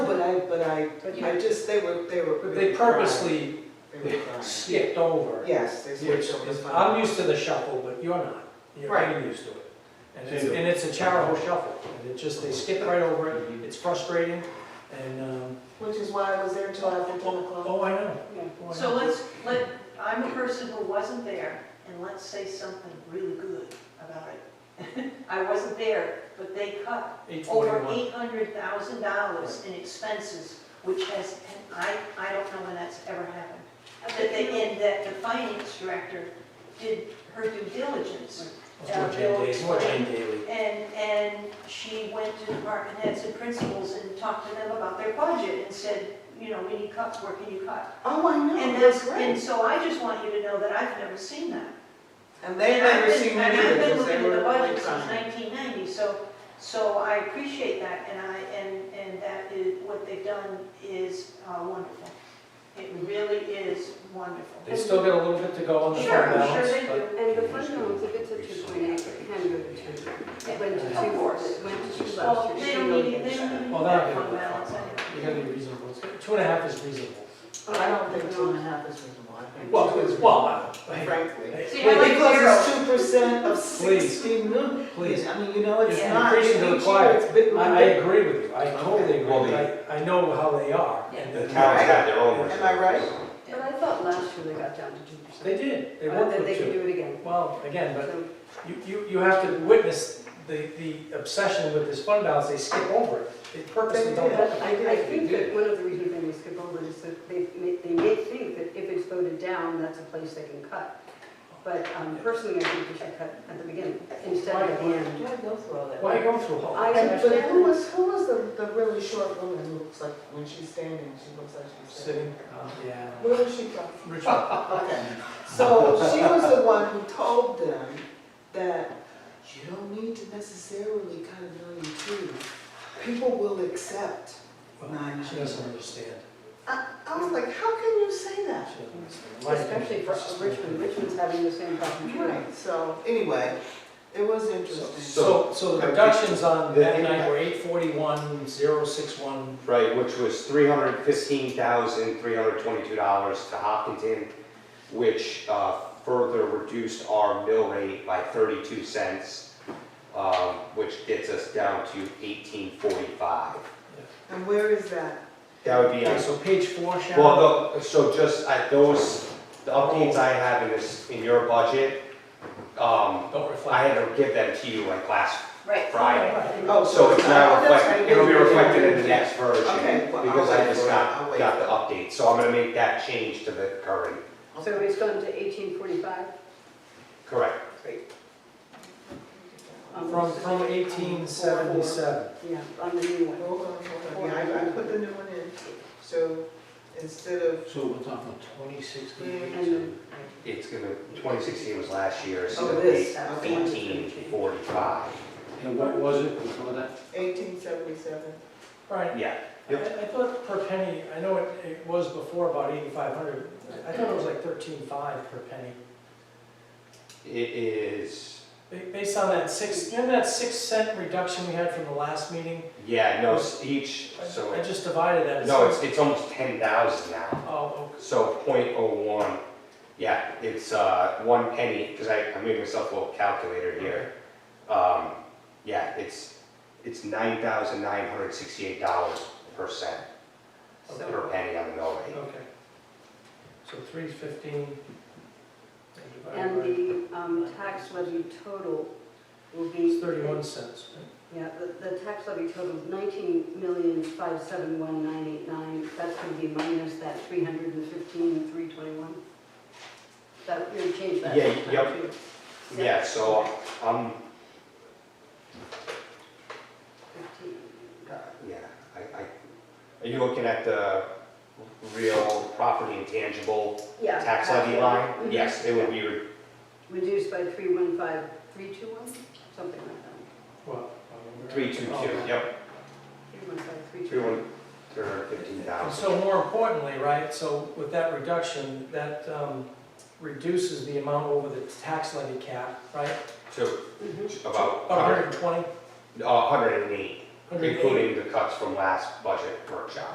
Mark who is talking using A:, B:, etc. A: but I, I just, they were, they were.
B: But they purposely
A: They were crying.
B: skipped over.
A: Yes, they
B: Which
A: switched over.
B: is,
A: to
B: I'm used to the shuffle, but you're not. You're not used to it. And it's, and it's a terrible shuffle. And it just, they skip right over it. It's frustrating and, um,
C: Which is why I was there till after ten o'clock.
B: oh, I know.
C: Yeah.
B: Oh, I know.
D: So let's, let, I'm a person who wasn't there, and let's say something really good about it. I wasn't there, but they cut
B: Eight
D: over
B: forty-one.
D: eight hundred thousand dollars in expenses, which has, and I, I don't know when that's ever happened. That they, and that the finance director did her due diligence.
B: It's
D: uh,
B: more Jane Daly, more Jane Daly.
D: And, and she went to department heads and principals and talked to them about their budget and said, you know, we need cuts, where can you cut?
C: Oh, I know,
D: And
C: that's
D: that's, and
C: great.
D: so I just want you to know that I've never seen that.
A: And they
D: And I've
A: never
D: been-
A: seen me either,
D: And I've been
A: because they
D: looking at the
A: were
D: budget
A: really
D: since
A: crying.
D: nineteen ninety, so, so I appreciate that, and I, and, and that is, what they've done is uh, wonderful. It really is wonderful.
B: They still got a little bit to go on the
D: Sure, sure
B: fund balance,
D: they
B: but-
D: do.
E: And the fund balance, if it's a two point eight, it can go to two. It went to two,
D: Of course.
E: it went to two
D: Well,
E: last year.
D: they don't need, they don't need
B: Well, oh, that'll
D: that
B: get
D: fund
B: a
D: balance
B: fund.
D: anyway.
B: You gotta be reasonable. It's- Two and a half is reasonable.
A: I don't think two and a half is reasonable, I think.
B: Well,
A: two is
B: well, I- hey,
A: Frankly.
B: hey,
D: See, I like
A: Because it's
D: zero.
A: two percent of
B: Please.
A: sixty million.
B: Please,
A: I mean, you know, it's
B: Yeah.
A: not, each
B: Increasing the
A: year
B: requirement.
A: it's been.
B: I, I agree with you. I totally agree.
F: Well,
B: with you. I, I know how they are. and
F: The
B: the-
F: towns have their own.
A: Am I right?
E: But I thought last year they got down to two percent.
B: They did. They
E: But
B: worked
E: then they
B: with
E: can
B: two.
E: do it again.
B: Well, again, but
E: So,
B: you, you, you have to witness the, the obsession with this fund balance. They skip over it. They purposely don't.
A: They
B: look
A: did.
B: at
E: But I, I think that one of the reasons they may skip over it is that they may, they may think that if it's voted down, that's a place they can cut. But um, personally, I think we should cut at the beginning instead of at the end.
C: Why'd go through all
B: it.
C: that?
B: Why go through all
E: I
B: that?
A: And- But who
E: understand.
A: was, who was the, the really short woman who looks like, when she's standing, she looks like she's sitting?
B: Sitting, uh, yeah.
A: Where was she from?
B: Richard,
A: Okay, so she was the one who told them that you don't need to necessarily cut a million too. People will accept nine
B: she
A: million.
B: doesn't understand.
A: I, I was like, how can you say
B: She
A: that?
B: doesn't understand. My
E: Especially for
B: opinion.
E: Richmond, Richmond's having the same problem. too.
A: Right, so anyway, it was interesting.
B: So, so the reductions on that night were eight forty-one, zero six one,
F: Right, which was three hundred fifteen thousand, three hundred twenty-two dollars to Hopkinton, which uh, further reduced our mill rate by thirty-two cents, um, which gets us down to eighteen forty-five.
A: And where is that?
F: That would be,
B: Okay,
F: on-
B: so page four, Sharon,
F: well, the- so just at those, the updates I have in this, in your budget, um,
B: don't
F: I
B: reflect.
F: had to give them to you like last
D: Right.
F: Friday.
A: Oh,
F: So it's
A: not
F: not reflected, it'll be reflected in the next version,
A: Okay, well, I'll
F: because I
A: wait
F: just
A: for it. I'll
F: got,
A: wait
F: got the update, so I'm gonna make that change to the current,
E: So it's gone to eighteen forty-five?
F: correct.
E: um,
B: From, from eighteen seventy-seven.
E: Yeah, on the new one.
A: Hold on, hold on, yeah, I, I put the new one in, so instead of,
G: So we're talking twenty sixteen?
E: And then
F: It's gonna, twenty sixteen was last year, so
A: Oh,
F: it'll
A: it
F: be
A: is. Okay.
F: eighteen forty-five,
G: And what was it before that?
A: eighteen seventy-seven.
B: Right,
F: yeah.
B: I, I thought per penny, I know it, it was before about eighty-five hundred, I thought it was like thirteen-five per penny.
F: It is,
B: Ba- Based on that six, you know that six cent reduction we had from the last meeting?
F: yeah, no, s- each,
B: I-
F: so,
B: I just divided that.
F: no, it's, it's almost ten thousand now,
B: Oh,
F: so point oh one, yeah, it's, uh, one penny, because I, I made myself a little calculator here. Um, yeah, it's, it's nine thousand nine hundred sixty-eight dollars per cent,
B: Okay.
F: per penny on the mill
B: okay,
F: rate.
B: okay. So three fifteen.
E: And the um, tax levy total will be.
B: It's thirty-one cents, right?
E: Yeah, the, the tax levy total is nineteen million, five seven one nine eight nine, that's gonna be minus that three hundred and fifteen, three twenty-one. That, you're gonna change that.
F: Yeah,
E: next time,
F: yep.
E: too.
F: Yeah, so, um,
E: Fifteen.
F: uh, yeah, I, I, are you looking at the real property intangible
E: Yeah.
F: tax levy line?
E: Mhm.
F: Yes, it would be, re-
E: Reduced by three one five, three two one, something like that,
B: Well. Oh,
F: three two two, yep,
E: three one five, three
F: three
E: two one.
F: one, three hundred fifteen
B: And
F: thousand.
B: So more importantly, right, so with that reduction, that um, reduces the amount over the tax levy cap, right?
F: So
E: Mhm.
F: about,
B: About
F: a
B: 120,
F: hundred and eight,
B: 180.
F: including the cuts from last budget workshop.